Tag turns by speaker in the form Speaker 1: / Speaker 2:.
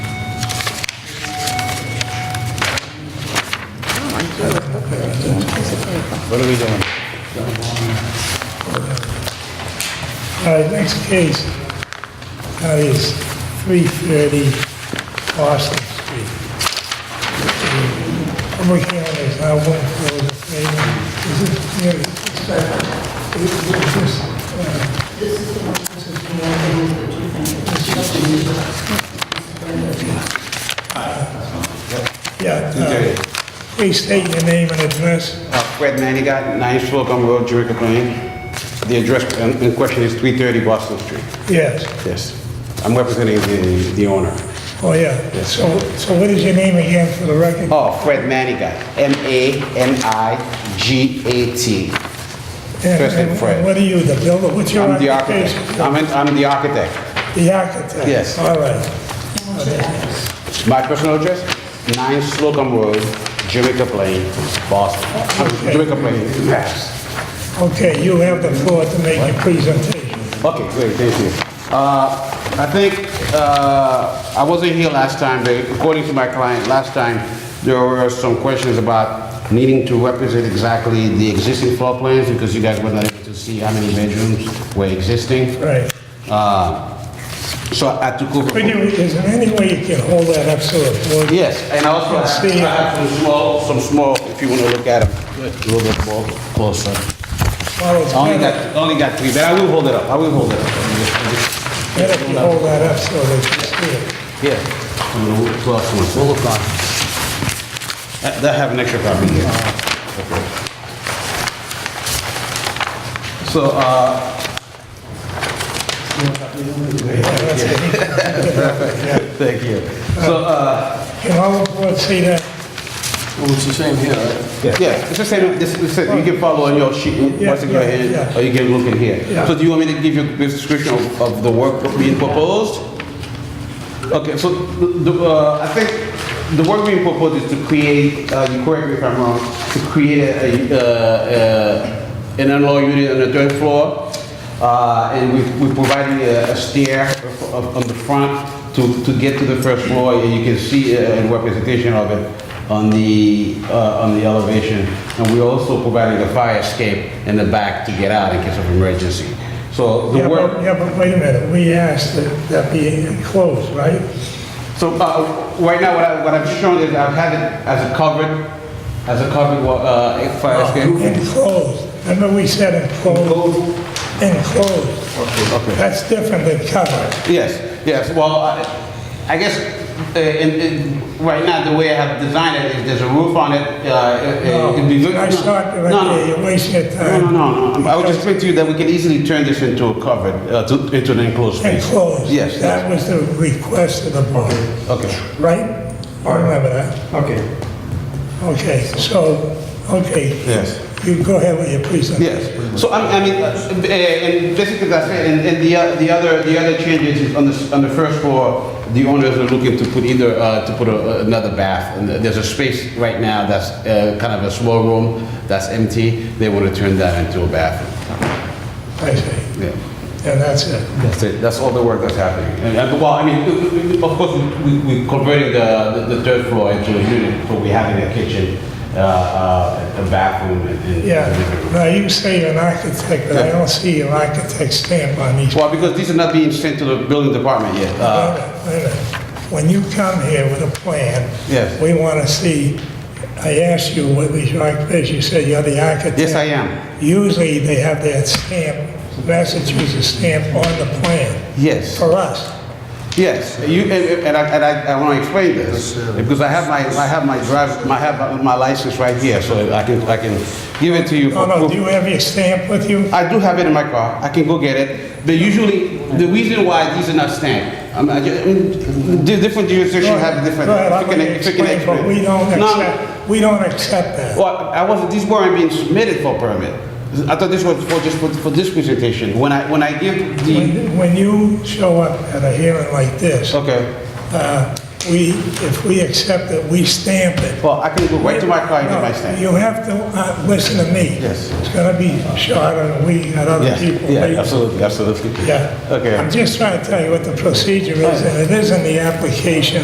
Speaker 1: What are we doing?
Speaker 2: All right, next case uh, is 330 Boston Street. The Public hearing is now open for those in favor. Is it, yeah, it's, uh, it- it's just, uh, Yeah, uh, please state your name and address.
Speaker 3: Uh, Fred Manigat, 9 Slocum Road, Jericho Plain. The address in in question is 330 Boston Street.
Speaker 2: Yes,
Speaker 3: Yes. I'm representing the the owner.
Speaker 2: oh, yeah. So, so what is your name again for the record?
Speaker 3: Oh, Fred Manigat, M-A-N-I-G-A-T.
Speaker 2: And-
Speaker 3: First name
Speaker 2: and-
Speaker 3: Fred.
Speaker 2: and What are you, the builder? What's your
Speaker 3: I'm the architect.
Speaker 2: occupation?
Speaker 3: I'm an- I'm the architect.
Speaker 2: The architect?
Speaker 3: Yes.
Speaker 2: All right.
Speaker 3: My personal address, 9 Slocum Road, Jericho Plain, Boston.
Speaker 2: Okay.
Speaker 3: Jericho Plain, Mass.
Speaker 2: Okay, you have the floor to make your presentation.
Speaker 3: Okay, great, thank you. Uh, I think, uh, I wasn't here last time, but according to my client, last time, there were some questions about needing to represent exactly the existing floor plans, because you guys were not able to see how many bedrooms were existing.
Speaker 2: Right.
Speaker 3: Uh, So I took over.
Speaker 2: Could you, is there any way you can hold that up so the board?
Speaker 3: Yes, and also I
Speaker 2: Let's see.
Speaker 3: I have some small, some small, if you want to look at them, a little bit more closer.
Speaker 2: follows
Speaker 3: I Only got,
Speaker 2: better?
Speaker 3: only got three, but I will hold it up, I will hold it up. Let me just- let me just-
Speaker 2: Better if you hold that up so they can see it.
Speaker 3: Yeah. I'm gonna look plus one, full of copies. That, that Uh, have an extra copy here.
Speaker 2: Uh-huh.
Speaker 3: So, uh, thank you. So, uh,
Speaker 2: Can all the board see that?
Speaker 4: Well, it's the same here, right?
Speaker 3: yeah, it's the same, this, this, you can follow on your sheet, what's in your hand,
Speaker 2: yeah.
Speaker 3: or you can look in
Speaker 2: Yeah.
Speaker 3: here. So do you want me to give you a description of, of the work being proposed? Okay, so the, the, uh, I think the work being proposed is to create, uh, you correct me if I'm wrong, to create a, a, uh, uh, an in-law unit on the third floor. Uh, and we, we're providing a, a stair of- of- on the front to, to get to the first floor. And you can see a representation of it on the, uh, on the elevation. And we're also providing a fire escape in the back to get out in case of emergency. So
Speaker 2: Yeah,
Speaker 3: the work.
Speaker 2: but- Yeah, but wait a minute, we asked that that be enclosed, right?
Speaker 3: So uh, right now, what, I, what I'm showing is I've had it as a covered, as a covered wa- uh,
Speaker 2: Ah,
Speaker 3: fire escape.
Speaker 2: Enclosed. Remember we said enclosed? Enclosed.
Speaker 3: Okay.
Speaker 2: That's different than covered.
Speaker 3: Yes, yes. Well, I, I guess uh, in, in, right now the way I have designed it is there's a roof on it. Uh, it, it can be
Speaker 2: No,
Speaker 3: looked-
Speaker 2: Oh. I saw it right
Speaker 3: no,
Speaker 2: there,
Speaker 3: no.
Speaker 2: you're wasting your
Speaker 3: No,
Speaker 2: time.
Speaker 3: no, no, no. I would just speak to you that we can easily turn this into a covered, uh, to, into an enclosed space.
Speaker 2: Enclosed.
Speaker 3: Yes.
Speaker 2: That
Speaker 3: yes.
Speaker 2: was the request of the board,
Speaker 3: Okay.
Speaker 2: right? I remember that.
Speaker 4: Okay.
Speaker 2: Okay, so, okay,
Speaker 3: Yes.
Speaker 2: you go ahead with your presentation.
Speaker 3: Yes, so I I mean, uh, and basically that's it, and, and the, uh, the other, the other changes is on the, s- on the first floor, the owners are looking to put either, uh, to put a- another bath, and there's a space right now that's uh, kind of a small room that's empty, they want to turn that into a bathroom.
Speaker 2: I see,
Speaker 3: Yeah,
Speaker 2: and that's it.
Speaker 3: that's it, that's all the work that's happening. And, uh, well, I mean, of course, we, we converted the, the third floor into a unit, so we have in a kitchen, uh, uh, a bathroom and- and.
Speaker 2: Yeah, now you say you're an architect, but I don't see an architect stamp on these.
Speaker 3: Well, because these are not being sent to the building department yet. Uh,
Speaker 2: Wait a minute. When you come here with a plan.
Speaker 3: Yes.
Speaker 2: We want to see, I asked you what was your occupation, you said you're the architect.
Speaker 3: Yes, I am.
Speaker 2: Usually they have that stamp, Massachusetts stamp on the plan
Speaker 3: Yes,
Speaker 2: for us.
Speaker 3: yes. You, and- and I, and I, I want to explain this, because I have my, I have my drive, I have my license right here, so I can, I can give it to you.
Speaker 2: No,
Speaker 3: for
Speaker 2: no,
Speaker 3: proof.
Speaker 2: do you have your stamp with you?
Speaker 3: I do have it in my car, I can go get it, but usually, the reason why these are not stamped, I'm, I, ju- di- different jurisdictions have different.
Speaker 2: Go ahead,
Speaker 3: if
Speaker 2: I'm
Speaker 3: you can-
Speaker 2: going to
Speaker 3: if you can
Speaker 2: explain, but
Speaker 3: explain.
Speaker 2: we don't
Speaker 3: No,
Speaker 2: accept, we don't accept that.
Speaker 3: Well, I wasn't, these weren't being submitted for permit. I thought this was for, just for, for this presentation. When I, when I give the,
Speaker 2: When when you show up at a hearing like this,
Speaker 3: okay.
Speaker 2: uh, we, if we accept it, we stamp it.
Speaker 3: Well, I can go right to my car and get my stamp.
Speaker 2: You have to uh, listen to me.
Speaker 3: Yes.
Speaker 2: It's going to be shorter than we got other
Speaker 3: Yes,
Speaker 2: people.
Speaker 3: yeah,
Speaker 2: waiting.
Speaker 3: absolutely, absolutely.
Speaker 2: Yeah.
Speaker 3: Okay.
Speaker 2: I'm just trying to tell you what the procedure is, and it is in the application